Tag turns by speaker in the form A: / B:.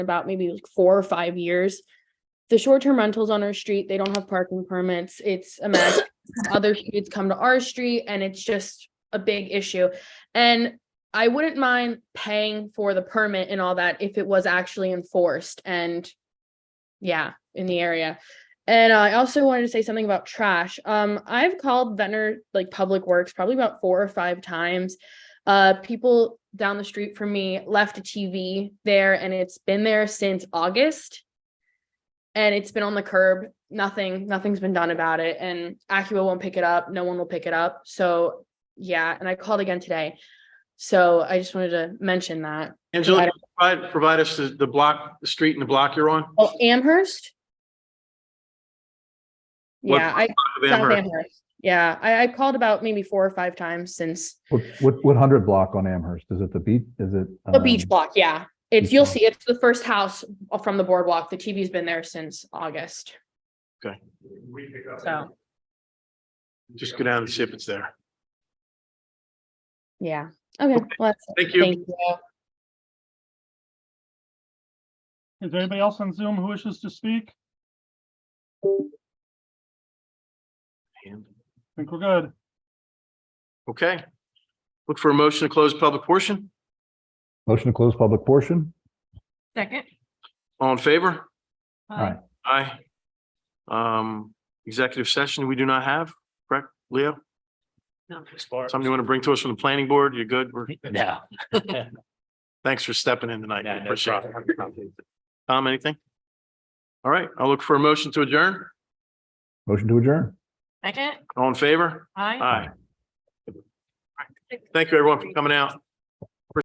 A: about maybe like four or five years. The short-term rentals on our street, they don't have parking permits. It's a mess. Other kids come to our street and it's just a big issue. And I wouldn't mind paying for the permit and all that if it was actually enforced and yeah, in the area. And I also wanted to say something about trash. Um, I've called Ventnor like Public Works probably about four or five times. Uh, people down the street from me left a TV there and it's been there since August. And it's been on the curb. Nothing, nothing's been done about it. And Acura won't pick it up. No one will pick it up. So yeah, and I called again today. So I just wanted to mention that.
B: Angela, provide, provide us the, the block, the street and the block you're on.
A: Oh, Amherst?
B: What
A: Yeah, I,
B: Of
A: South
B: Amherst.
A: Amherst. Yeah, I, I called about maybe four or five times since
C: What, what, what hundred block on Amherst? Is it the beach? Is it?
A: the beach
C: um,
A: block. Yeah. It's,
C: beach
A: you'll
C: block.
A: see, it's the first house from the boardwalk. The TV's been there since August.
B: Okay.
A: So,
B: Just go down and see if it's there.
A: yeah. Okay. Well, that's it.
B: Thank you.
A: Thank you.
D: Is there anybody else on Zoom who wishes to speak? I think we're good.
B: Okay. Look for a motion to close public portion.
C: Motion to close public portion?
E: Second.
B: All in favor?
C: Aye.
B: Aye. Um, executive session, we do not have, correct, Leo?
E: No.
B: Something you want to bring to us from the planning board? You're good. We're,
F: No.
B: thanks for stepping in tonight.
F: No, no
B: Appreciate it. Tom, anything? All right, I'll look for a motion to adjourn.
C: Motion to adjourn?
E: Second.
B: All in favor? Aye.
E: Aye.
B: Thank you, everyone, for coming out.